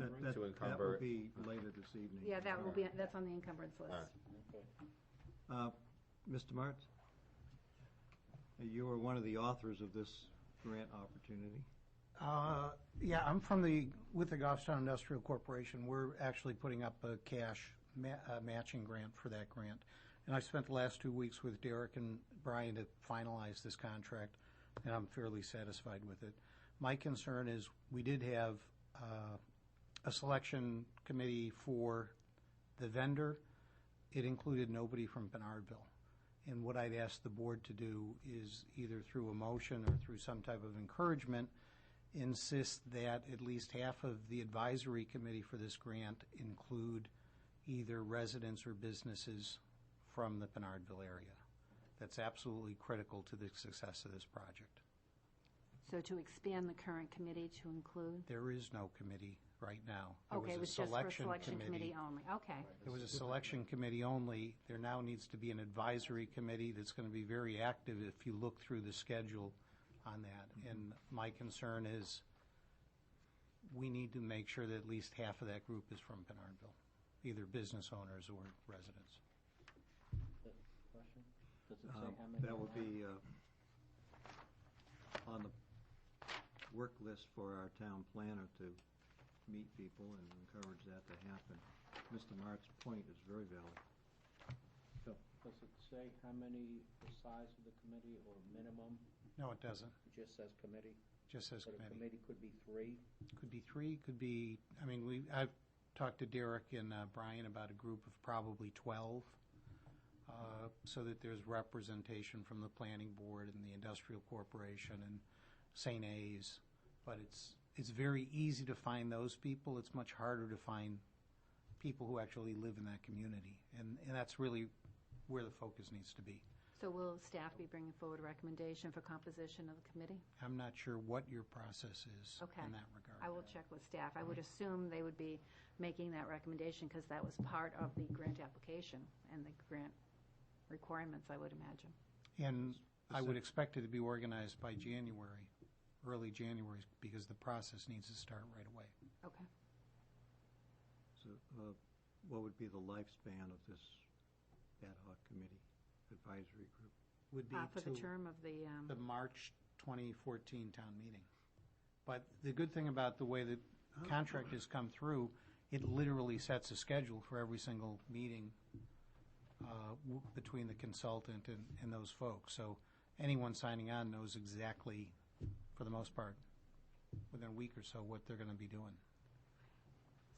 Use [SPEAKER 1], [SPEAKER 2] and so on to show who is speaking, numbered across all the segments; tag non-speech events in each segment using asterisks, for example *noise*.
[SPEAKER 1] That will
[SPEAKER 2] um, encumber.
[SPEAKER 1] be later this evening.
[SPEAKER 3] Yeah, that will be, that's on the encumbrance list.
[SPEAKER 2] Alright.
[SPEAKER 1] Uh, Mr. Martz? You were one of the authors of this grant opportunity.
[SPEAKER 4] Uh, Yeah, I'm from the, with the Goffstown Industrial Corporation, we're actually putting up a cash ma- uh, matching grant for that grant. And I spent the last two weeks with Derek and Brian to finalize this contract, and I'm fairly satisfied with it. My concern is, we did have uh, a selection committee for the vendor. It included nobody from Bernardville. And what I'd ask the board to do is either through a motion or through some type of encouragement, insist that at least half of the advisory committee for this grant include either residents or businesses from the Bernardville area. That's absolutely critical to the success of this project.
[SPEAKER 3] So to expand the current committee to include?
[SPEAKER 4] There is no committee right now. There
[SPEAKER 3] Okay,
[SPEAKER 4] a
[SPEAKER 3] it was just for selection committee only, okay.
[SPEAKER 4] It was a selection committee only. There now needs to be an advisory committee that's going to be very active if you look through the schedule on
[SPEAKER 5] Mm-hmm.
[SPEAKER 4] that. And my concern is, we need to make sure that at least half of that group is from Bernardville, either business owners or residents.
[SPEAKER 5] Question? Does it
[SPEAKER 1] Uh,
[SPEAKER 5] say how many?
[SPEAKER 1] That will
[SPEAKER 5] are?
[SPEAKER 1] be uh, on the work list for our town planner to meet people and encourage that to happen. Mr. Martz's point is very valid.
[SPEAKER 5] Does it say how many, the size of the committee or minimum?
[SPEAKER 4] No, it doesn't.
[SPEAKER 5] It just says committee.
[SPEAKER 4] It just says
[SPEAKER 5] But a
[SPEAKER 4] committee.
[SPEAKER 5] committee could be three.
[SPEAKER 4] Could be three, could be, I mean, we, I've talked to Derek and uh, Brian about a group of probably 12, uh, so that there's representation from the planning board and the industrial corporation and St. A's. But it's, it's very easy to find those people. It's much harder to find people who actually live in that community. And, and that's really where the focus needs to be.
[SPEAKER 3] So will staff be bringing forward a recommendation for composition of the committee?
[SPEAKER 4] I'm not sure what your process is
[SPEAKER 3] Okay.
[SPEAKER 4] in that regard.
[SPEAKER 3] I will check with staff. I would assume they would be making that recommendation because that was part of the grant application and the grant requirements, I would imagine.
[SPEAKER 4] And I would expect it to be organized by January, early January, because the process needs to start right away.
[SPEAKER 3] Okay.
[SPEAKER 1] So uh, what would be the lifespan of this ad hoc committee advisory group?
[SPEAKER 4] Would be
[SPEAKER 3] Uh, For the
[SPEAKER 4] to
[SPEAKER 3] term of the, um,
[SPEAKER 4] the March 2014 town meeting. But the good thing about the way the contract has come through, it literally sets a schedule for every single meeting uh, w- between the consultant and, and those folks. So anyone signing on knows exactly, for the most part, within a week or so, what they're going to be doing.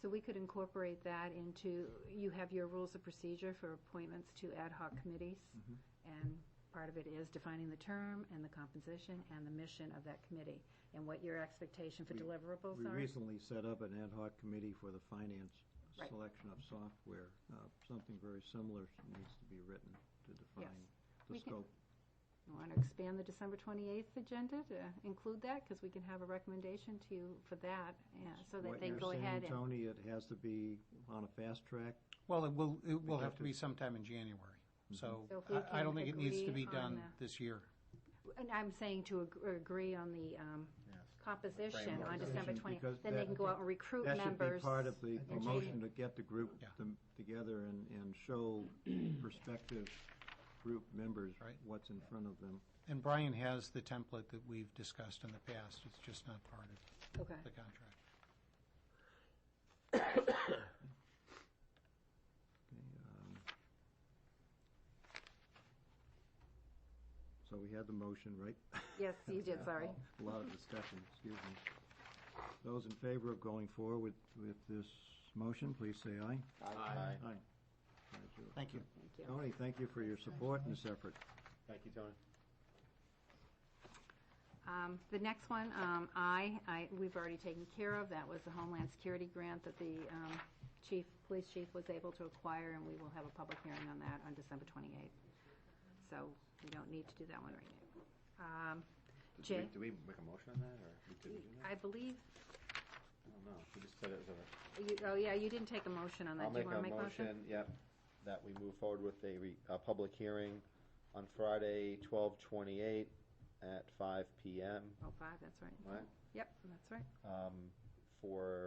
[SPEAKER 3] so we could incorporate that into, you have your rules of procedure for appointments to ad hoc
[SPEAKER 1] Mm-hmm.
[SPEAKER 3] committees. And part of it is defining the term and the composition and the mission of that committee and what your expectation for
[SPEAKER 1] We-
[SPEAKER 3] deliverables
[SPEAKER 1] We
[SPEAKER 3] are.
[SPEAKER 1] recently set up an ad hoc committee for the finance
[SPEAKER 3] Right.
[SPEAKER 1] selection of software. Uh, Something very similar needs to be written to define the
[SPEAKER 3] We can-
[SPEAKER 1] scope.
[SPEAKER 3] You Want to expand the December 28th agenda to include that? Because we can have a recommendation to you for that, uh, so that
[SPEAKER 1] What
[SPEAKER 3] they
[SPEAKER 1] you're
[SPEAKER 3] go
[SPEAKER 1] saying,
[SPEAKER 3] ahead and...
[SPEAKER 1] Tony, it has to be on a fast track?
[SPEAKER 4] Well, it will, it will have to Mm-hmm.
[SPEAKER 1] Productive.
[SPEAKER 4] be sometime in January, so
[SPEAKER 3] So if we
[SPEAKER 4] I- I don't
[SPEAKER 3] can
[SPEAKER 4] think it needs to
[SPEAKER 3] agree
[SPEAKER 4] be
[SPEAKER 3] on
[SPEAKER 4] done
[SPEAKER 3] the-
[SPEAKER 4] this year.
[SPEAKER 3] And I'm saying to ag- agree on the um, composition on
[SPEAKER 1] Framework.
[SPEAKER 3] December
[SPEAKER 1] Composition,
[SPEAKER 3] 20th,
[SPEAKER 1] because
[SPEAKER 3] then they
[SPEAKER 1] that-
[SPEAKER 3] can go out and recruit
[SPEAKER 1] That should
[SPEAKER 3] members.
[SPEAKER 1] be part of the
[SPEAKER 3] and
[SPEAKER 1] motion to get the group
[SPEAKER 4] Yeah.
[SPEAKER 1] to- together and, and show
[SPEAKER 4] *clears throat*
[SPEAKER 1] prospective group members
[SPEAKER 4] Right.
[SPEAKER 1] what's in front of them.
[SPEAKER 4] And Brian has the template that we've discussed in the past, it's just not part of
[SPEAKER 3] Okay,
[SPEAKER 4] the contract.
[SPEAKER 1] Okay, um, So we had the motion, right?
[SPEAKER 3] yes, you did, sorry.
[SPEAKER 1] A lot of discussion, excuse me. Those in favor of going forward with this motion, please say aye.
[SPEAKER 2] Aye.
[SPEAKER 1] Aye. Five zero.
[SPEAKER 4] Thank you.
[SPEAKER 3] Thank you.
[SPEAKER 1] Tony, thank you for your support in this effort.
[SPEAKER 2] Thank you, Tony.
[SPEAKER 3] Um, The next one, um, I, I, we've already taken care of, that was the Homeland Security Grant that the um, chief, police chief was able to acquire, and we will have a public hearing on that on December 28th. So we don't need to do that one right now. Um,
[SPEAKER 2] Did
[SPEAKER 3] Jay?
[SPEAKER 2] we- Did we make a motion on that, or we didn't do that?
[SPEAKER 3] I believe,
[SPEAKER 2] I don't know. We just said it was a.
[SPEAKER 3] you, oh yeah, you didn't take a motion on
[SPEAKER 2] I'll
[SPEAKER 3] that. Do
[SPEAKER 2] make
[SPEAKER 3] you want to
[SPEAKER 2] a
[SPEAKER 3] make a motion?
[SPEAKER 2] motion, yep, that we move forward with a, re- a public hearing on Friday, twelve twenty-eight at five PM,
[SPEAKER 3] Oh, five, that's right.
[SPEAKER 2] right?
[SPEAKER 3] Yep, that's right.
[SPEAKER 2] Um, for